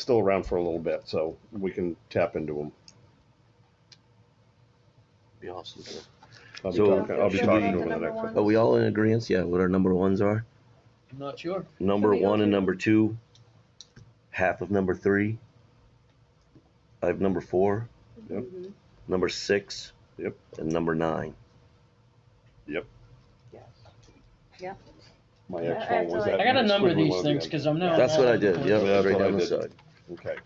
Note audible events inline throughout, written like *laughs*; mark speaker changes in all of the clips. Speaker 1: still around for a little bit, so we can tap into them.
Speaker 2: Be awesome.
Speaker 1: I'll be
Speaker 2: So-
Speaker 1: talking, I'll be
Speaker 2: Should
Speaker 1: talking
Speaker 2: we-
Speaker 1: to them in the next.
Speaker 2: Are we all in agreement? Yeah, what our number ones are?
Speaker 3: I'm not sure.
Speaker 2: Number
Speaker 4: Can we go
Speaker 2: one and
Speaker 4: through-
Speaker 2: number two, half of number three. I have number four,
Speaker 1: Yep.
Speaker 4: Mhm.
Speaker 2: number six.
Speaker 1: Yep.
Speaker 2: And number nine.
Speaker 1: My
Speaker 4: Yeah,
Speaker 1: next one was
Speaker 4: that's all
Speaker 1: that.
Speaker 4: right.
Speaker 3: I gotta
Speaker 1: next
Speaker 3: number
Speaker 1: squiggly one
Speaker 3: these
Speaker 1: at the
Speaker 3: things,
Speaker 1: end.
Speaker 3: cause I'm
Speaker 5: Oh,
Speaker 3: now.
Speaker 2: That's what I
Speaker 3: all over
Speaker 2: did,
Speaker 3: the
Speaker 2: yep,
Speaker 3: place.
Speaker 1: Yeah, that's
Speaker 2: right
Speaker 1: what I
Speaker 2: down the
Speaker 1: did.
Speaker 2: side.
Speaker 1: Okay,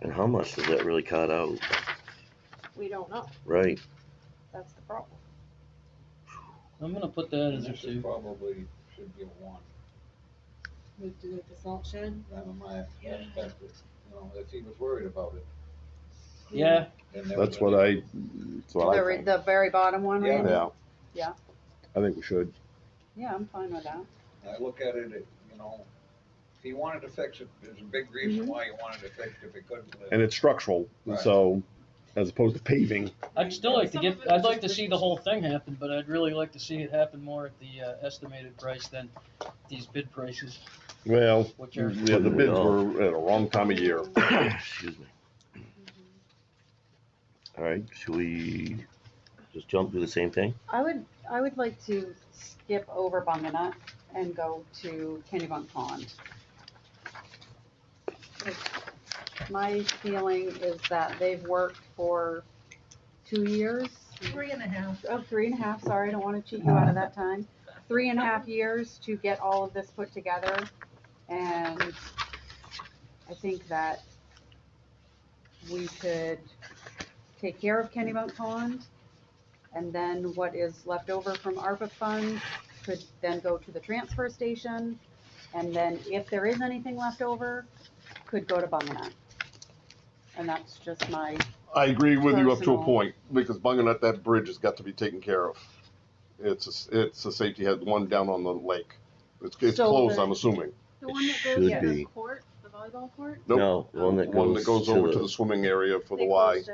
Speaker 2: And how much does that really cut out?
Speaker 4: We don't know,
Speaker 1: *coughs*
Speaker 2: Right,
Speaker 4: that's the problem.
Speaker 3: I'm gonna put that as a
Speaker 6: This is
Speaker 3: two.
Speaker 6: probably should get one,
Speaker 4: We do the salt shed.
Speaker 6: that was my perspective, you know, if he was worried about it.
Speaker 3: Yeah,
Speaker 6: then that
Speaker 1: that's
Speaker 6: was-
Speaker 1: what I, that's
Speaker 4: The,
Speaker 1: what I
Speaker 4: re-
Speaker 1: think.
Speaker 4: the very bottom one,
Speaker 6: Yeah.
Speaker 4: Randy?
Speaker 1: Yeah.
Speaker 4: Yeah.
Speaker 1: I think we should.
Speaker 4: Yeah, I'm fine with that.
Speaker 6: I look at it, it, you know, if he wanted to fix it, there's a big
Speaker 7: Mm-hmm.
Speaker 6: reason why he wanted to fix it, if he couldn't. live.
Speaker 1: And it's structural,
Speaker 6: Right.
Speaker 1: so as opposed to paving,
Speaker 3: I'd still like to
Speaker 5: Some
Speaker 3: get,
Speaker 5: of it
Speaker 3: I'd
Speaker 5: is
Speaker 3: like to
Speaker 5: just
Speaker 3: see the
Speaker 5: ridiculous.
Speaker 3: whole thing happen, but I'd really like to see it happen more at the uh, estimated price than these bid prices,
Speaker 1: well,
Speaker 3: which are,
Speaker 1: yeah, the bids were at a wrong time of year.
Speaker 2: excuse me. All right, should we just jump through the same thing?
Speaker 4: I would, I would like to skip over Bunganut and go to Kennybunk Pond. My feeling is that they've worked for two years,
Speaker 5: Three and a half.
Speaker 4: oh, three and a half, sorry, I don't wanna cheat you out of that time. Three and a half years to get all of this put together, and I think that we could take care of Kennybunk Pond, and then what is left over from ARPA funds could then go to the transfer station, and then if there is anything left over, could go to Bunganut. And that's just my,
Speaker 1: I agree with you up to a
Speaker 4: Personal.
Speaker 1: point, because bunging at that bridge has got to be taken care of. It's, a s- it's a safety head, one down on the lake. It's, it's
Speaker 4: So
Speaker 1: closed,
Speaker 4: the-
Speaker 1: I'm assuming.
Speaker 2: It
Speaker 5: The one that goes
Speaker 2: should
Speaker 5: to the
Speaker 2: be.
Speaker 5: court, the volleyball court?
Speaker 1: Nope,
Speaker 2: No, the one that
Speaker 1: one that
Speaker 2: goes
Speaker 1: goes over to the
Speaker 2: to
Speaker 1: swimming area for the
Speaker 5: They
Speaker 1: Y,
Speaker 5: closed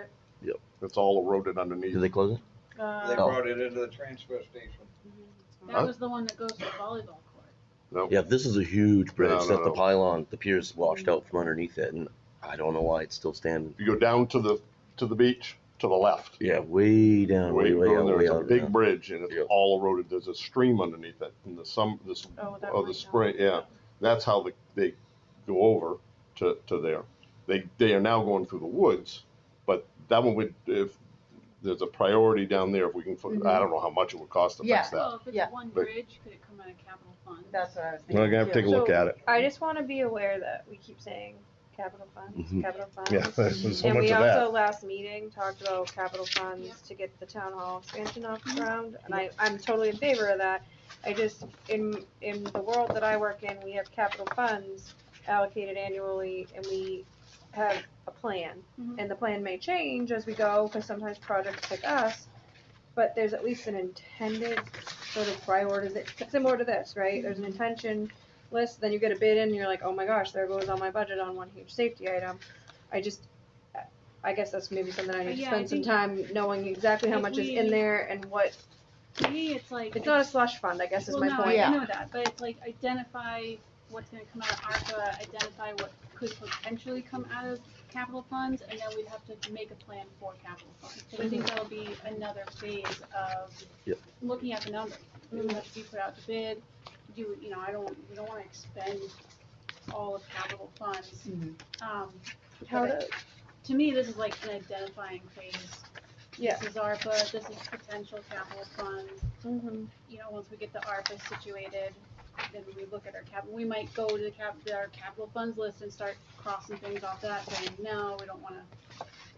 Speaker 5: it.
Speaker 1: it's all eroded
Speaker 2: the, do
Speaker 1: underneath.
Speaker 2: they close it?
Speaker 6: They
Speaker 5: Uh,
Speaker 2: Oh.
Speaker 6: brought it into the transfer station.
Speaker 1: Huh?
Speaker 5: That was the one that goes to the volleyball court.
Speaker 1: No,
Speaker 2: Yeah, if this is a huge
Speaker 1: No,
Speaker 2: bridge,
Speaker 1: no,
Speaker 2: that the
Speaker 1: no.
Speaker 2: pylon, the pier's washed out from underneath it, and I don't know why it's still standing.
Speaker 1: you go down to the, to the beach, to the left.
Speaker 2: Yeah, way down,
Speaker 1: Way
Speaker 2: way,
Speaker 1: you
Speaker 2: way
Speaker 1: go,
Speaker 2: out, way
Speaker 1: there's a
Speaker 2: out.
Speaker 1: big bridge and
Speaker 2: Yeah.
Speaker 1: it's all eroded, there's a stream underneath it, and the some, this,
Speaker 5: Oh, that
Speaker 1: oh,
Speaker 5: might
Speaker 1: the
Speaker 5: not-
Speaker 1: spring, yeah. that's how the, they go over to, to there. They, they are now going through the woods, but that one would, if, there's a priority down there, if we can,
Speaker 5: Mm-hmm.
Speaker 1: put- I don't know how much it would cost to
Speaker 4: Yeah.
Speaker 1: fix that.
Speaker 5: Well, if
Speaker 4: Yeah.
Speaker 5: it's one
Speaker 1: But-
Speaker 5: bridge, could it come out of capital fund?
Speaker 4: that's what I was
Speaker 1: We're
Speaker 4: thinking.
Speaker 1: gonna have to take a
Speaker 4: too.
Speaker 1: look at it.
Speaker 7: I just want to be aware that we keep saying capital funds,
Speaker 2: Mhm.
Speaker 7: capital funds.
Speaker 1: Mm-hmm. Yeah, *laughs* there's so
Speaker 7: and
Speaker 1: much
Speaker 7: we
Speaker 1: of
Speaker 7: also
Speaker 1: that.
Speaker 7: last meeting talked about capital funds
Speaker 5: Yeah.
Speaker 7: to get the town hall expansion off the ground, and I, I'm totally in favor of that. I just in in the world that I work in, we have capital funds allocated annually, and we have a plan,
Speaker 5: Mhm.
Speaker 7: and the plan may change as we go because sometimes projects pick us. But there's at least an intended sort of priority, similar to this, right? There's
Speaker 5: Mm-hmm.
Speaker 7: an intention list, then you get a bid in, and you're like, oh my gosh, there goes all my budget on one huge safety item. I just, I guess that's maybe something I
Speaker 5: But
Speaker 7: need to
Speaker 5: yeah, I
Speaker 7: spend some
Speaker 5: think-
Speaker 7: time knowing exactly how
Speaker 5: if
Speaker 7: much is
Speaker 5: we-
Speaker 7: in there and what,
Speaker 5: To me, it's like.
Speaker 7: it's not a slush fund, I guess is
Speaker 5: Well,
Speaker 7: my
Speaker 5: no,
Speaker 7: point.
Speaker 4: Yeah.
Speaker 5: I know that, but it's like identify what's gonna come out of ARPA, identify what could potentially come out of capital funds, and then we'd have to make a plan for capital funds. Cause I think that'll be another phase of
Speaker 2: Yep.
Speaker 5: looking at the numbers. We would have to be put out to bid, do, you know, I don't, we don't wanna expend all of capital funds.
Speaker 4: Mhm.
Speaker 5: Um,
Speaker 7: How
Speaker 5: but
Speaker 7: to-
Speaker 5: to me, this is like an identifying phase.
Speaker 7: Yeah.
Speaker 5: This is ARPA, this is potential capital funds
Speaker 7: Mhm.
Speaker 5: you know, once we get the ARPA situated, then we look at our cap, we might go to the cap, our capital funds list and start crossing things off that, saying, no, we don't wanna,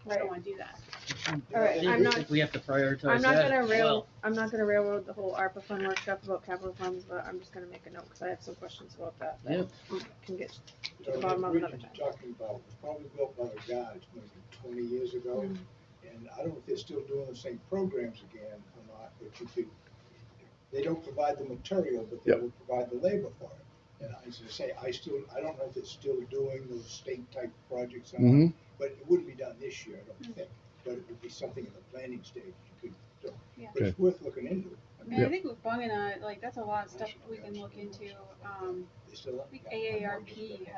Speaker 5: we
Speaker 7: Right.
Speaker 5: don't wanna do that.
Speaker 7: All right, I'm
Speaker 3: we-
Speaker 7: not-
Speaker 3: we have to prioritize that.
Speaker 7: I'm not gonna
Speaker 3: as
Speaker 7: rail,
Speaker 3: well.
Speaker 7: I'm not gonna railroad the whole ARPA fund workshop about capital funds, but I'm just gonna make a note, cause I have some questions about that. that Can get
Speaker 6: So
Speaker 7: The bottom
Speaker 6: the
Speaker 7: of
Speaker 6: bridge
Speaker 7: another
Speaker 6: you're
Speaker 7: time.
Speaker 6: talking about was probably built by the guys maybe twenty years ago, and I don't know if they're still doing the same programs again or not, but you could, they don't provide the material, but they
Speaker 1: Yep.
Speaker 6: will provide the labor for it. And as I say, I still, I don't know if they're still doing those state type projects, or not, but it wouldn't be done this year, I don't think, but it would be something in the planning stage you could, do.
Speaker 5: Yeah.
Speaker 6: but it's worth looking into. I
Speaker 5: I
Speaker 6: mean,
Speaker 5: mean, I think with Bungin, like, that's a uh, lot of stuff we can look into, um,
Speaker 6: they still-
Speaker 5: I think AARP